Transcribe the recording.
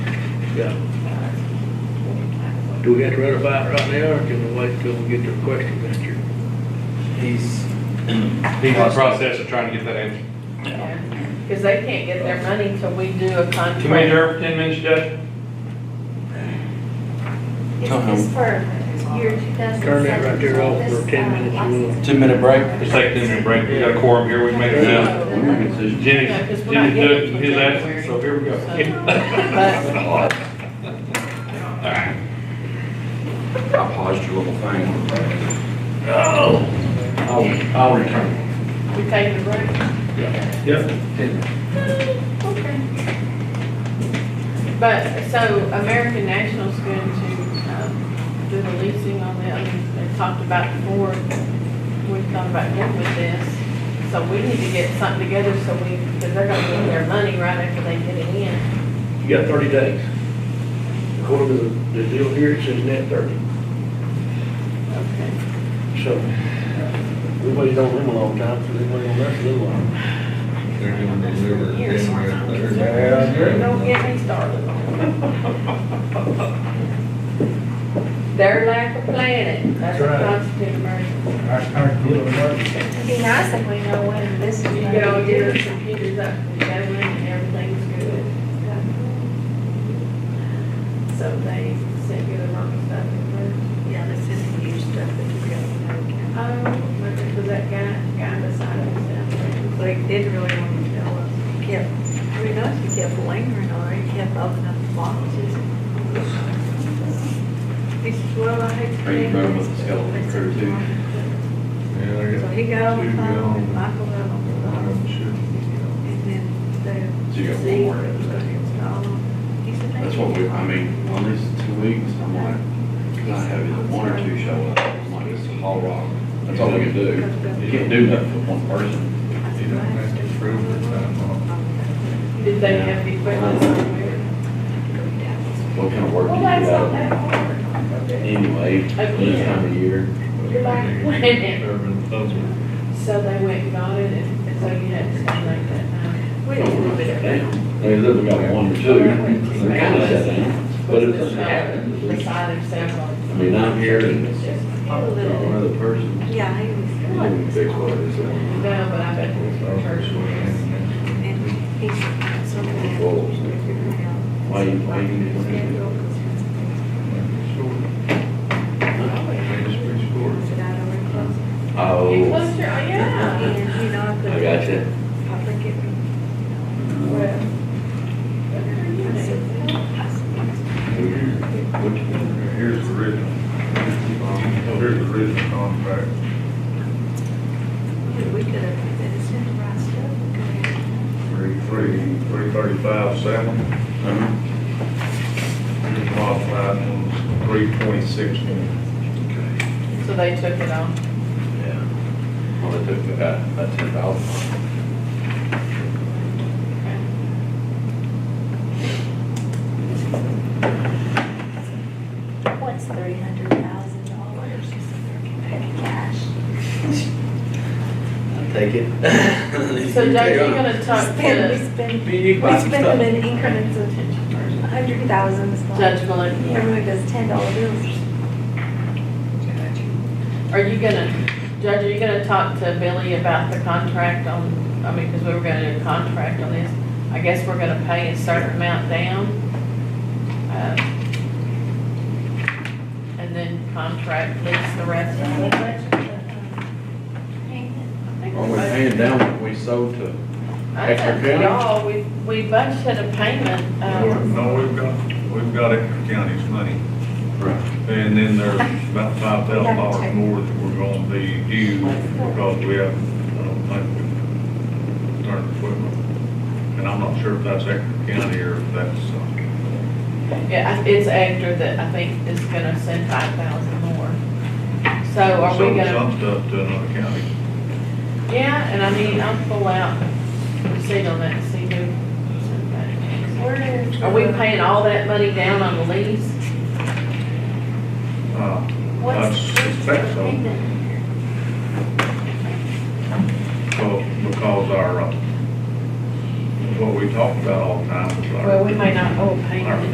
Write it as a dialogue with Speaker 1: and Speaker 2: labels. Speaker 1: Yeah. Do we have to ratify it right now, or can we wait till we get the question answered?
Speaker 2: He's
Speaker 3: He's in the process of trying to get that answer.
Speaker 4: Because they can't get their money till we do a contract.
Speaker 3: Can we adjourn for ten minutes, Judge?
Speaker 5: It's just for year two thousand.
Speaker 1: Turn that right there off for 10 minutes, you will.
Speaker 2: two-minute break.
Speaker 3: Just take a ten minute break, we got a quorum here, we can make it now.
Speaker 2: Decision.
Speaker 3: Jenny's,
Speaker 4: Yeah, 'cause we're not
Speaker 3: Jenny's
Speaker 4: getting
Speaker 3: doing
Speaker 4: it
Speaker 3: his
Speaker 4: till
Speaker 3: ass, so here we go.
Speaker 4: So-
Speaker 3: Alright,
Speaker 6: I paused your little thing.
Speaker 2: I'll, I'll return.
Speaker 4: We taking a break?
Speaker 3: yep,
Speaker 4: But, so American National's going to, um, do the leasing on that, and they talked about before, we thought about getting with this. So we need to get something together so we, because they're gonna get their money right after they get it in.
Speaker 1: You got thirty days. According to the, the deal here, it says net thirty,
Speaker 4: Okay.
Speaker 1: so we waited on them a long time, so they waited on us a little while.
Speaker 7: They're doing the river,
Speaker 4: Years
Speaker 7: then we're
Speaker 4: worth
Speaker 7: at
Speaker 4: of
Speaker 7: the-
Speaker 4: research. Don't get me started Their lack of planning, that's a
Speaker 2: That's right.
Speaker 4: constant emergency.
Speaker 5: It'd be nice if we know when this is.
Speaker 4: You get all your computers up and going and everything's good. So they sent you the wrong stuff.
Speaker 5: Yeah, this is the new stuff that we got.
Speaker 4: Oh, because that guy, guy beside us down there.
Speaker 5: But he did really want to tell us, he kept, I mean, us, he kept lingering on, it. he kept opening up the boxes. He says, well, I hate to.
Speaker 2: Are you
Speaker 5: think
Speaker 2: running
Speaker 5: this,
Speaker 2: with the
Speaker 5: but
Speaker 2: skeleton
Speaker 5: it's
Speaker 2: crew, too?
Speaker 5: important."
Speaker 7: Yeah, I
Speaker 5: So
Speaker 7: got-
Speaker 5: he got on the
Speaker 7: Two
Speaker 5: phone, and
Speaker 7: gone.
Speaker 5: Michael got on the phone,
Speaker 7: I'm sure.
Speaker 5: and then the.
Speaker 2: So you got one
Speaker 5: Z
Speaker 2: more
Speaker 5: was
Speaker 2: episode.
Speaker 5: installed. He said, "Thank
Speaker 2: That's what we,
Speaker 5: you."
Speaker 2: I mean, on these two weeks, I'm like, because I have either one or two show up, I'm like, it's a hall rock. That's all we can do. You can't do nothing with one person.
Speaker 7: You don't have to prove the time off.
Speaker 4: Did they have the equipment somewhere?
Speaker 2: What kind of work do you do out anyway, this time of year?
Speaker 4: You're like, "Wait a
Speaker 7: Urban puzzle.
Speaker 4: So they went and got it and, and so you had to stay like that night.
Speaker 5: We didn't do it.
Speaker 2: Down. They literally got one or two. They're kind of set down, but it doesn't happen.
Speaker 4: Beside himself.
Speaker 2: I mean, I'm here and
Speaker 4: It's just-
Speaker 5: A little.
Speaker 2: another person.
Speaker 5: Yeah, he
Speaker 2: You
Speaker 5: was.
Speaker 2: didn't fix what it is.
Speaker 4: No, but I bet the church was.
Speaker 5: And he said, something.
Speaker 2: Well, why you- why you need to do that?
Speaker 5: Said, "I don't really close."
Speaker 4: It
Speaker 2: Oh,
Speaker 4: was, your- yeah.
Speaker 5: And, you know, I put.
Speaker 2: I got you.
Speaker 5: I think it.
Speaker 4: Well,
Speaker 5: I said,
Speaker 2: What you got?
Speaker 7: Here's the original. Here's the original contract.
Speaker 5: "Well, We could have, that is in the right stuff.
Speaker 7: Three, three, three thirty-five, seven.
Speaker 2: Uh-huh.
Speaker 7: Here's modified ones, three twenty-six one.
Speaker 4: So they took it off.
Speaker 2: Yeah. Well, they took about, about ten thousand.
Speaker 5: What's three hundred thousand dollars? Cash.
Speaker 2: I'll take it.
Speaker 4: So Judge, you're gonna talk
Speaker 5: Spend,
Speaker 4: to
Speaker 5: we spend,
Speaker 2: You
Speaker 5: we
Speaker 2: buy
Speaker 5: spend
Speaker 2: some
Speaker 5: them
Speaker 2: stuff.
Speaker 5: in increments of a hundred thousand. It's like
Speaker 4: Judge Maloney.
Speaker 5: Everyone does ten dollar bills.
Speaker 4: Are you gonna, Judge, are you gonna talk to Billy about the contract on, I mean, because we were gonna do a contract on this. I guess we're gonna pay a certain amount down. uh, And then contract lease the rest of it.
Speaker 2: Are we paying down what we sold to?
Speaker 4: I said,
Speaker 2: Extra
Speaker 4: y'all, we, we budgeted a payment, um,
Speaker 7: No, we've got, we've got Ector County's money,
Speaker 2: Right.
Speaker 7: and then there's about five thousand dollars more that we're gonna be due because we have, I don't think we turned equipment. And I'm not sure if that's Ector County or if that's, uh,
Speaker 4: yeah, I- it's after that I think is gonna send five thousand more. So are we
Speaker 7: sold
Speaker 4: gonna,
Speaker 7: some stuff to another county.
Speaker 4: yeah, and I mean, I'll pull out receipt on that, and see who sent that. Are we paying all that money down on the lease?
Speaker 7: Uh, I suspect so. Well, because our, uh, what we talk about all the time is our.
Speaker 4: Well, we may not oh, owe a payment.
Speaker 7: Our